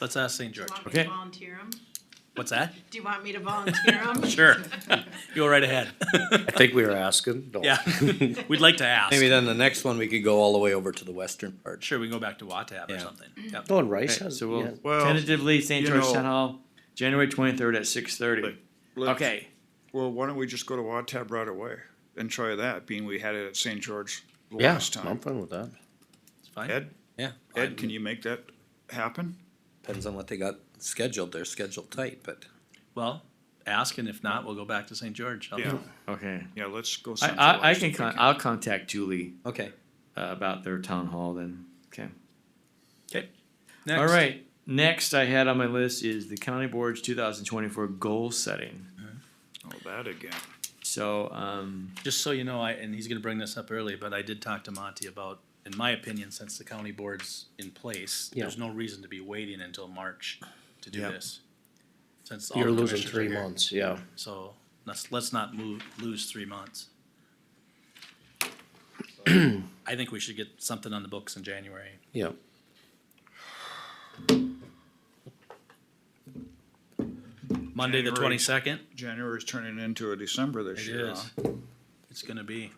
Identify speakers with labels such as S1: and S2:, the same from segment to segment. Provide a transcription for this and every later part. S1: Let's ask St.
S2: Do you
S1: George.
S2: want me
S3: Okay.
S2: to volunteer 'em?
S1: What's that?
S2: Do you want me to volunteer 'em?
S1: Sure. Go right ahead.
S4: I think we were asking. no.
S1: Yeah, we'd like to ask.
S5: Maybe then the next one, we could go all the way over to the western part.
S1: Sure, we can go back to Watab or
S5: Yeah.
S1: something.
S6: Mm-hmm.
S1: Yep.
S4: Oh, and Rice
S3: Okay,
S4: has,
S3: so
S4: yeah.
S3: we'll
S6: Well,
S3: tentatively St.
S6: you
S3: George
S6: know-
S3: Town Hall, January twenty-third at six thirty.
S6: Like, let's-
S3: Okay,
S6: Well, why don't we just go to Watab right away and try that, being we had it at St. George the
S4: Yeah,
S6: last
S4: I'm
S6: time.
S4: fine with that.
S1: It's fine.
S6: Ed?
S5: Yeah.
S6: Ed, can you make that happen?
S5: Depends on what they got scheduled. They're scheduled tight, but
S1: Well, ask, and if not, we'll go back to St. George. I'll-
S6: Yeah,
S3: okay.
S6: yeah, let's go.
S3: I,
S6: something
S3: I, I
S6: last
S3: can,
S6: week.
S3: con- I'll contact Julie
S5: okay.
S3: uh, about their town hall then. Okay.
S1: Okay.
S3: All
S1: Next.
S3: right. Next I had on my list is the county board's two thousand twenty-four goal setting.
S6: Oh, that again.
S3: So, um,
S1: Just so you know, I, and he's gonna bring this up early, but I did talk to Monty about, in my opinion, since the county board's in place, there's no reason to be waiting until March to do
S3: Yep.
S1: this. Since all
S4: You're
S1: the
S4: losing
S1: commissioners are
S4: three
S1: here.
S4: months, yeah.
S1: So let's, let's not move, lose three months. I think we should get something on the books in January.
S4: Yeah.
S1: Monday, the
S6: January.
S1: twenty-second,
S6: January's turning into a December this
S1: it
S6: year,
S1: is.
S6: huh?
S1: It's gonna be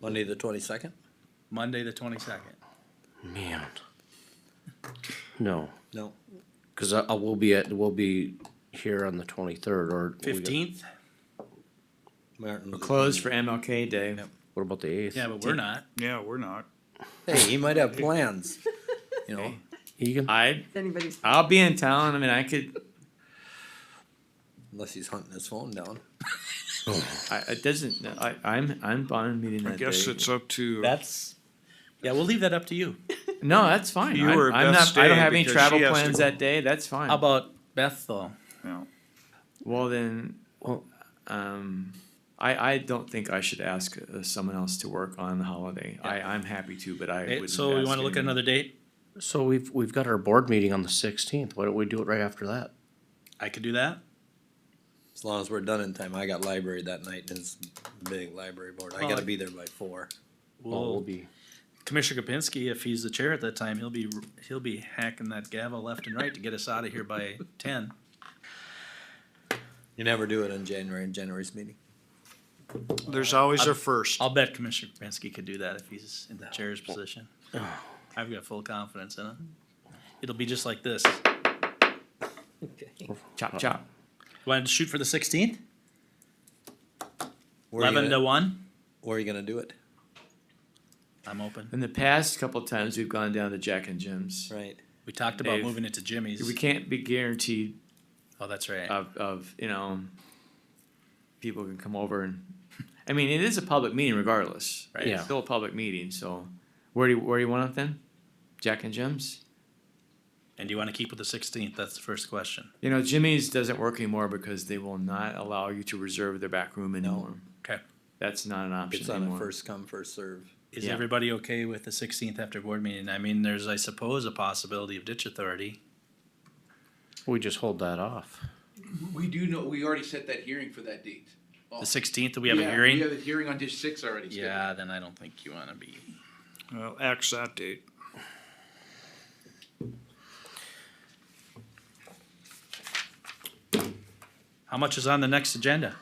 S5: Monday the twenty-second?
S1: Monday, the twenty-second.
S4: Man. No,
S5: No.
S4: because I, I will be at, we'll be here on the twenty-third or. we got-
S1: Fifteenth?
S5: Martin.
S3: we're
S5: Luther
S3: closed for
S5: King.
S3: MLK Day.
S4: What about the eighth?
S1: Yeah, but we're not.
S6: Yeah, we're not.
S5: Hey, he might have plans, you know?
S4: Egan,
S3: I,
S2: Anybody's.
S3: I'll be in town. I mean, I could,
S5: Unless he's hunting his phone down.
S3: I, it doesn't, I, I'm, I'm on meeting
S6: I
S3: that
S6: guess
S3: day.
S6: it's up to
S1: That's, yeah, we'll leave that up to you.
S3: No, that's fine.
S6: You
S3: I'm,
S6: were
S3: I'm
S6: Beth's
S3: not, I don't
S6: day
S3: have any
S6: because
S3: travel
S6: she has to
S3: plans
S6: go.
S3: that day. That's fine.
S1: How about Beth though?
S6: you know,
S3: Well, then,
S4: Well-
S3: um, I, I don't think I should ask uh, someone else to work on the holiday. I, I'm happy to, but I
S1: Okay,
S3: wouldn't.
S1: so we
S3: ask
S1: wanna look at
S3: anyone.
S1: another date?
S4: so we've, we've got our board meeting on the sixteenth. Why don't we do it right after that?
S1: I could do that.
S5: As long as we're done in time. I got library that night and it's big library board. I
S1: Well,
S5: gotta
S1: I-
S5: be there by four.
S4: Oh, we'll
S1: Well,
S4: be,
S1: Commissioner Kapinski, if he's the chair at that time, he'll be, he'll be hacking that gavel left and right to get us out of here by ten.
S5: You never do it in January, in January's meeting.
S6: there's always a first.
S1: I'll bet Commissioner Kapinski could do that if he's in the chair's position. I've got full confidence in him. It'll be just like this. Oh.
S3: Chop, chop.
S1: Want to shoot for the sixteenth?
S5: Where are you
S1: Eleven to
S5: gonna-
S1: one?
S5: Where are you gonna do it?
S1: I'm open.
S3: In the past couple of times, we've gone down to Jack and Jim's.
S5: Right.
S1: We talked about
S3: Dave.
S1: moving it to Jimmy's.
S3: We Uh, can't be guaranteed
S1: Oh, that's right.
S3: of, of you know, people can come over and. I mean, it is a public meeting regardless. Right?
S4: Yeah.
S3: It's still a public meeting. So, where do you, where do you want it then? Jack and Jim's.
S1: And do you want to keep with the sixteenth? That's the first question.
S3: You know, Jimmy's doesn't work anymore because they will not allow you to reserve their back room anymore.
S1: Okay.
S3: That's not an option
S5: It's on a
S3: anymore.
S5: first come, first serve.
S1: Is
S3: Yeah.
S1: everybody okay with the sixteenth after board meeting? I mean, there's, I suppose, a possibility of ditch authority.
S4: we just hold that off.
S7: We do know, we already set that hearing for that date. Oh,
S1: The sixteenth, do we have a
S7: Yeah, We
S1: hearing?
S7: have a hearing on dish six already. scheduled.
S1: Yeah, then I don't think you want to be.
S6: Well, axe that date.
S1: How much is on the next agenda?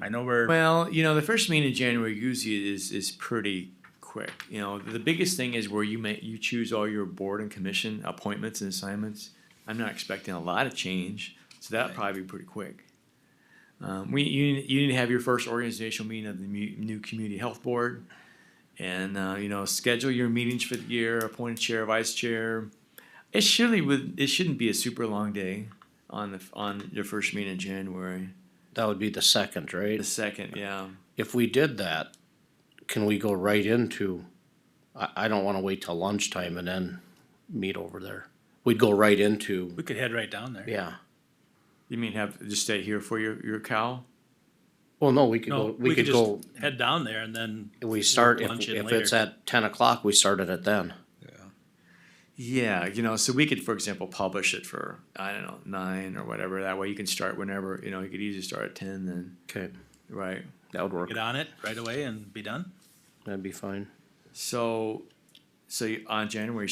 S1: I know we're,
S3: Well, you know, the first meeting in January usually is is pretty quick. You know, the biggest thing is where you may you choose all your board and commission appointments and assignments. I'm not expecting a lot of change, so that will probably be pretty quick. Um, we you you need to have your first organizational meeting of the mu- new community health board, and uh, you know schedule your meetings for the year, appoint a chair, vice chair. It surely would it shouldn't be a super long day on the on your first meeting in January.
S4: That would be the second, right?
S3: The second, yeah.
S4: If we did that, can we go right into, I, I don't wanna wait till lunchtime and then meet over there. We'd go right into,
S1: we could head right down there.
S4: yeah.
S3: You mean have just stay here for your your cow?
S4: Well, no, we could go,
S1: No,
S4: we could go,
S1: just head down there and then.
S4: we start, if,
S1: lunch in
S4: if it's
S1: later.
S4: at ten o'clock, we started it then.
S3: Yeah, you know, so we could, for example, publish it for I don't know nine or whatever. That way you can start whenever you know. You could easily start at ten then,
S4: Okay,
S3: right?
S4: that would work.
S1: Get on it right away and be done?
S4: That'd be fine.
S3: So, so you, on January